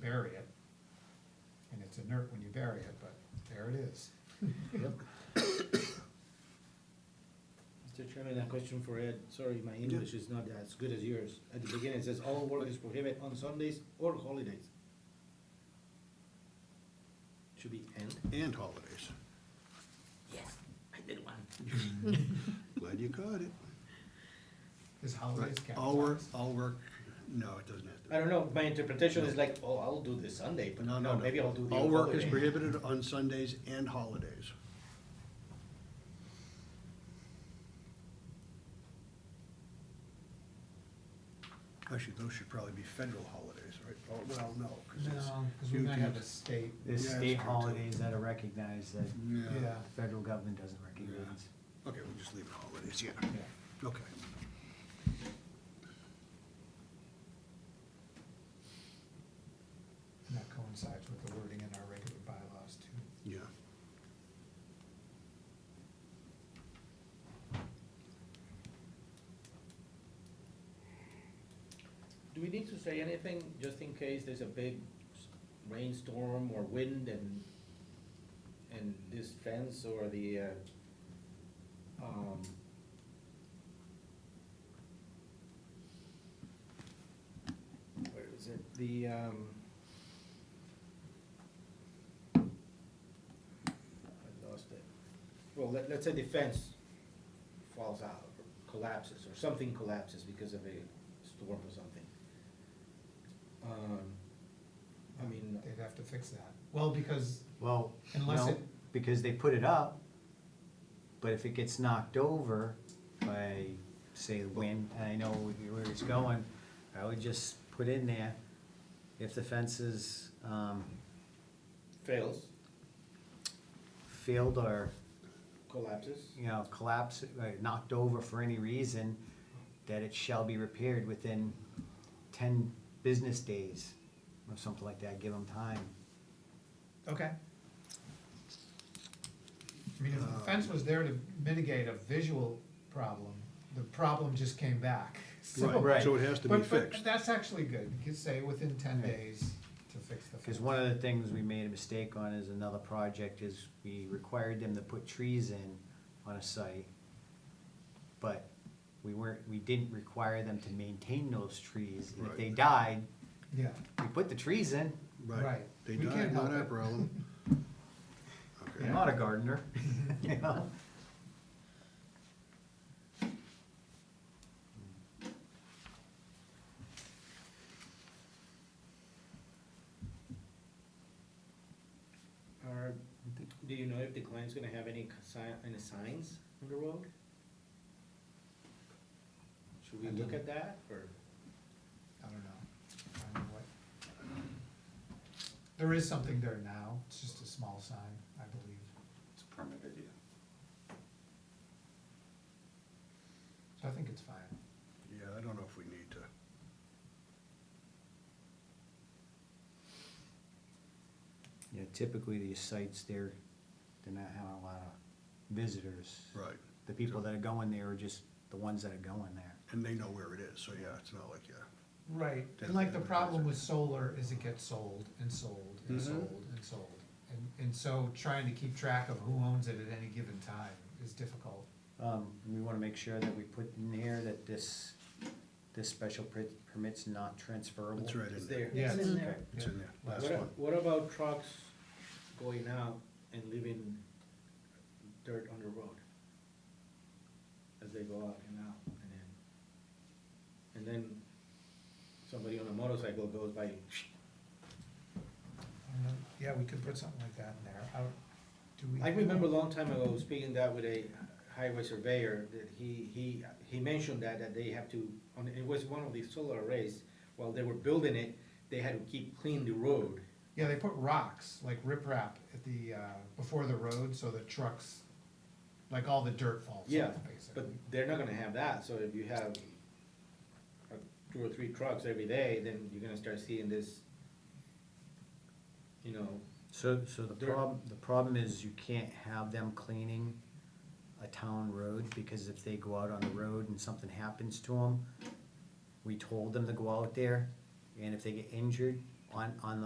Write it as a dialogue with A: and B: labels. A: bury it. And it's inert when you bury it, but there it is.
B: Mr. Chairman, a question for Ed. Sorry, my English is not as good as yours. At the beginning, it says all work is prohibited on Sundays or holidays. Should be and.
C: and holidays.
B: Yes, I did one.
C: Glad you caught it.
A: Is holidays capitalized?
C: All work, all work, no, it doesn't have to.
B: I don't know, my interpretation is like, oh, I'll do this Sunday, but
C: No,
B: no,
C: no, no.
B: maybe I'll do the.
C: All work is
B: holiday.
C: prohibited on Sundays and holidays. Actually, those should probably be federal holidays, right? Oh, Well, no, because it's.
A: No, because we
C: you
A: might
C: can-
A: have a state,
C: Yeah,
D: There's
C: that's
D: state
C: true, too.
D: holidays that are recognized that
C: Yeah,
A: yeah,
D: the federal government doesn't recognize.
C: okay, we'll just leave it holidays, yeah,
A: yeah.
C: okay.
A: And that coincides with the wording in our regular bylaws too.
C: Yeah.
B: Do we need to say anything, just in case there's a big s- rainstorm or wind and, and this fence or the, uh, um, where is it, the, um, I lost it. Well, let, let's say the fence falls out, or collapses, or something collapses because of a storm or something. Um, I mean,
A: They'd have to fix that. Well, because,
D: Well,
A: Unless
D: no,
A: it-
D: because they put it up, but if it gets knocked over by, say, the wind, and I know where it's going, I would just put in there, if the fence is, um,
B: fails,
D: filled or,
B: collapses,
D: you know, collapsed, uh, knocked over for any reason, that it shall be repaired within ten business days, or something like that, give them time.
A: okay. I mean, if the
C: Um,
A: fence was there to mitigate a visual problem, the problem just came back, so.
C: Right, so it has to be
A: But, but
C: fixed.
A: that's actually good. You could say within ten
D: Right.
A: days to fix the fence.
D: Because one of the things we made a mistake on is another project is we required them to put trees in on a site. But we weren't, we didn't require them to maintain those trees. And if they
C: Right.
D: died,
A: Yeah,
D: we put the trees in.
C: Right,
A: Right.
C: they
A: We can't
C: died, not
A: help
C: our
A: it.
C: problem. Okay.
D: I'm not a gardener, you know?
B: or do you know if the client's gonna have any sign, any signs on the road? Should we
A: I
B: look
A: don't-
B: at that, or?
A: I don't know. I don't know what. There is something there now. It's just a small sign, I believe.
E: It's permitted, yeah.
A: So I think it's fine.
C: Yeah, I don't know if we need to.
D: Yeah, typically these sites, they're, they're not having a lot of visitors.
C: Right,
D: The people that are going there are just the ones that are going there.
C: and they know where it is, so yeah, it's not like, yeah,
A: Right, and
C: Doesn't
A: like the problem with
C: advertise it.
A: solar is it gets sold and sold and
C: Mhm.
B: Mm-hmm.
A: sold and sold. And, and so trying to keep track of who owns it at any given time is difficult.
D: Um, we wanna make sure that we put in here that this, this special per- permit's not transferable.
C: it's right
B: It's
C: in
B: there.
C: there.
A: Yeah.
B: It's in there.
C: It's in there,
A: Yeah.
C: last
B: What, a-
C: one.
B: what about trucks going out and leaving dirt on the road? As they go out and out and in? And then somebody on a motorcycle goes by,
A: I don't know. Yeah, we could put something like that in there. How, do we?
B: I remember a long time ago, speaking that with a highway surveyor, that he, he, he mentioned that, that they have to, on, it was one of the solar arrays, while they were building it, they had to keep clean the road.
A: Yeah, they put rocks, like riprap at the, uh, before the road, so the trucks, like all the dirt falls
B: Yeah,
A: off, basically.
B: but they're not gonna have that, so if you have uh, two or three trucks every day, then you're gonna start seeing this, you know,
D: So, so the
B: There-
D: problem, the problem is you can't have them cleaning a town road, because if they go out on the road and something happens to them, we told them to go out there, and if they get injured on, on the